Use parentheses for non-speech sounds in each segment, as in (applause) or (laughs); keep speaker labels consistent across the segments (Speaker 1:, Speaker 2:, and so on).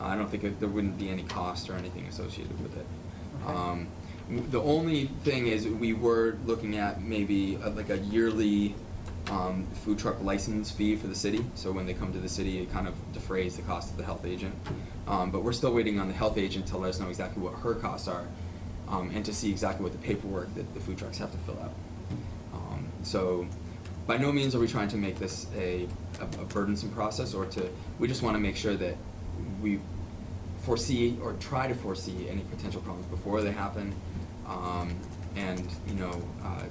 Speaker 1: I don't think it- there wouldn't be any cost or anything associated with it.
Speaker 2: Okay.
Speaker 1: Um, w- The only thing is, we were looking at maybe uh, like a yearly um, food truck license fee for the city. So when they come to the city, it kind of defrays the cost of the health agent. Um, But we're still waiting on the health agent to let us know exactly what her costs are um, and to see exactly what the paperwork that the food trucks have to fill out. Um, So by no means are we trying to make this a, a a burdensome process or to, we just want to make sure that we foresee or try to foresee any potential problems before they happen, um, and, you know, uh,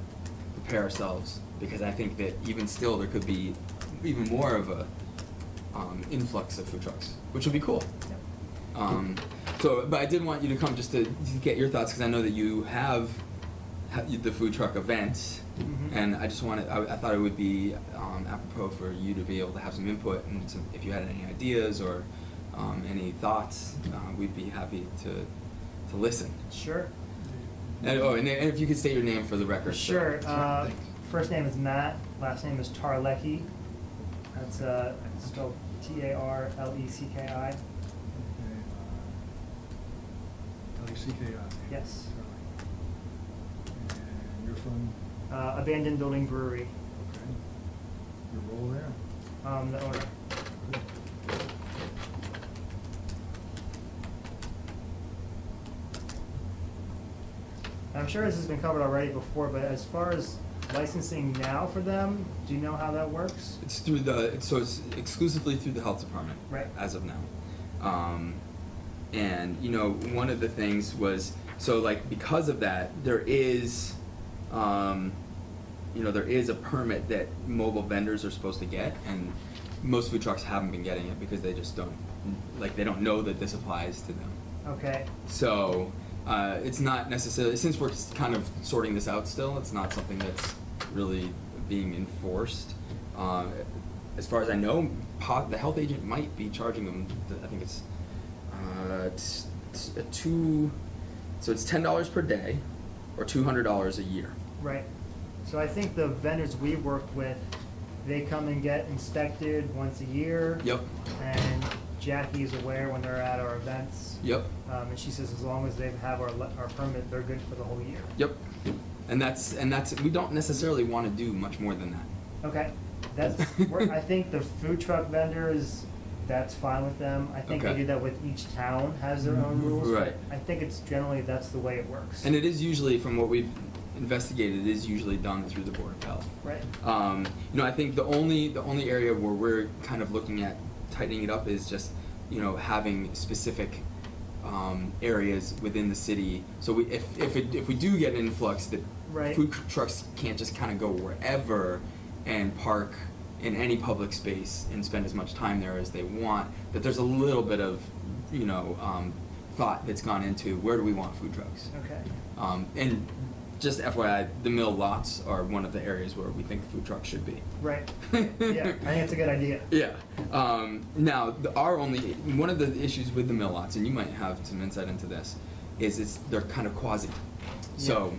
Speaker 1: prepare ourselves, because I think that even still, there could be even more of a, um, influx of food trucks, which would be cool.
Speaker 2: Yep.
Speaker 1: Um, so, but I did want you to come just to, to get your thoughts, because I know that you have, ha you- the food truck events,
Speaker 2: Mhm.
Speaker 1: Mm-hmm. and I just wanted, I, I thought it would be um, apropos for you to be able to have some input and some, if you had any ideas or um, any thoughts, uh, we'd be happy to, to listen.
Speaker 2: Sure.
Speaker 1: And, oh, and, if you could state your name for the record. so-
Speaker 2: Sure. Uh,
Speaker 3: Thanks.
Speaker 2: first name is Matt. Last name is Tarlecki. That's uh, spelled T A R L E C K I.
Speaker 3: L-E-C-K-I.
Speaker 2: Yes.
Speaker 3: And you're from,
Speaker 2: Uh, abandoned building brewery.
Speaker 3: okay, your role there?
Speaker 2: Um, the owner.
Speaker 3: Good.
Speaker 2: And I'm sure this has been covered already before, but as far as licensing now for them, do you know how that works?
Speaker 1: It's through the it's- so it's exclusively through the health department.
Speaker 2: Right.
Speaker 1: As of now, um, and you know one of the things was so like because of that there is, um, you know there is a permit that mobile vendors are supposed to get and most food trucks haven't been getting it because they just don't like they don't know that this applies to them.
Speaker 2: Okay.
Speaker 1: So uh, it's not necessarily since we're s- kind of sorting this out still. It's not something that's really being enforced. Um, as far as I know, po- the health agent might be charging them. th- I think it's uh, t- t- a two. So it's ten dollars per day, or two hundred dollars a year.
Speaker 2: Right. So I think the vendors we work with, they come and get inspected once a year.
Speaker 1: Yep.
Speaker 2: And Jackie's aware when they're at our events.
Speaker 1: Yep.
Speaker 2: Um, and she says as long as they have our, le- our permit, they're good for the whole year.
Speaker 1: Yep. And that's and that's we don't necessarily want to do much more than that.
Speaker 2: Okay, that's, we're- I think the food truck vendors, that's fine with them. I think
Speaker 1: Okay.
Speaker 2: they
Speaker 1: Mm-hmm.
Speaker 2: do that with each town has their own rules. but
Speaker 1: Right.
Speaker 2: I think it's generally, that's the way it works.
Speaker 1: And it is usually from what we've investigated. It is usually done through the board of health.
Speaker 2: Right,
Speaker 1: Um, you know, I think the only the only area where we're kind of looking at tightening it up is just you know having specific um, areas within the city. So we, if if it, if we do get an influx, that
Speaker 2: Right.
Speaker 1: food trucks can't just kind of go wherever and park in any public space and spend as much time there as they want. That there's a little bit of you know um, thought that's gone into where do we want food trucks.
Speaker 2: okay,
Speaker 1: Um, and just FYI, the mill lots are one of the areas where we think food trucks should be. (laughs)
Speaker 2: right. Yeah, I think it's a good idea.
Speaker 1: Yeah. Um, now, the, our only one of the issues with the mill lots, and you might have some insight into this, is it's they're kind of quasi. So,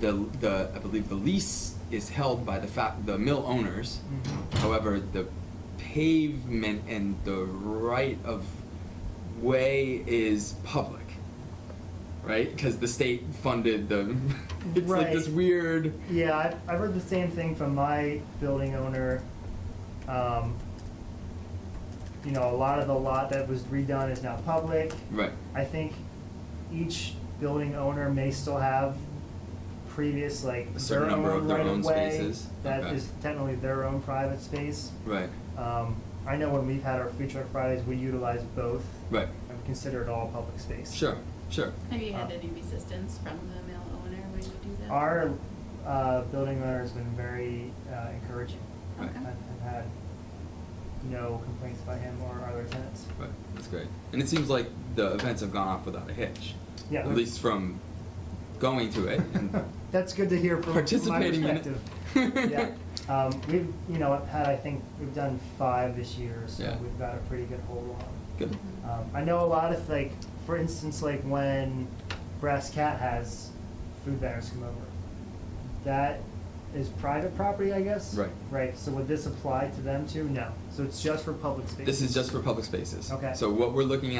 Speaker 1: the the I believe the lease is held by the fa- the mill owners.
Speaker 2: Mhm.
Speaker 1: However, the pavement and the right of way is public, right? Because the state funded the. (laughs) It's like this
Speaker 2: Right.
Speaker 1: weird.
Speaker 2: Yeah, I've, I've heard the same thing from my building owner. Um, you know, a lot of the lot that was redone is now public.
Speaker 1: Right.
Speaker 2: I think each building owner may still have previous, like,
Speaker 1: A certain
Speaker 2: their
Speaker 1: number of
Speaker 2: own
Speaker 1: their
Speaker 2: right
Speaker 1: own
Speaker 2: of way.
Speaker 1: spaces.
Speaker 2: That
Speaker 1: Okay.
Speaker 2: is technically their own private space.
Speaker 1: Right.
Speaker 2: Um, I know when we've had our food truck Fridays, we utilize both.
Speaker 1: Right.
Speaker 2: And we consider it all public space.
Speaker 1: Sure. Sure.
Speaker 4: Have you had
Speaker 2: Uh,
Speaker 4: any resistance from the mill owner when you do that?
Speaker 2: Our, uh, building owner has been very, uh, encouraging.
Speaker 1: Right.
Speaker 4: Okay.
Speaker 2: I've, I've had no complaints by him or our other tenants.
Speaker 1: Right, that's great. And it seems like the events have gone off without a hitch.
Speaker 2: Yeah.
Speaker 1: At least from going to
Speaker 2: (laughs)
Speaker 1: it and
Speaker 2: That's good to hear from from my perspective.
Speaker 1: participating in (laughs) it.
Speaker 2: Yeah, um, we've, you know, had, I think, we've done five this year, so
Speaker 1: Yeah.
Speaker 2: we've got a pretty good hold on.
Speaker 1: Good.
Speaker 2: Um, I know a lot of, like, for instance, like when Brass Cat has food vendors come over, that is private property, I guess?
Speaker 1: Right.
Speaker 2: Right, so would this apply to them too? No, so it's just for public spaces?
Speaker 1: This is just for public spaces.
Speaker 2: Okay.
Speaker 1: So what we're looking at.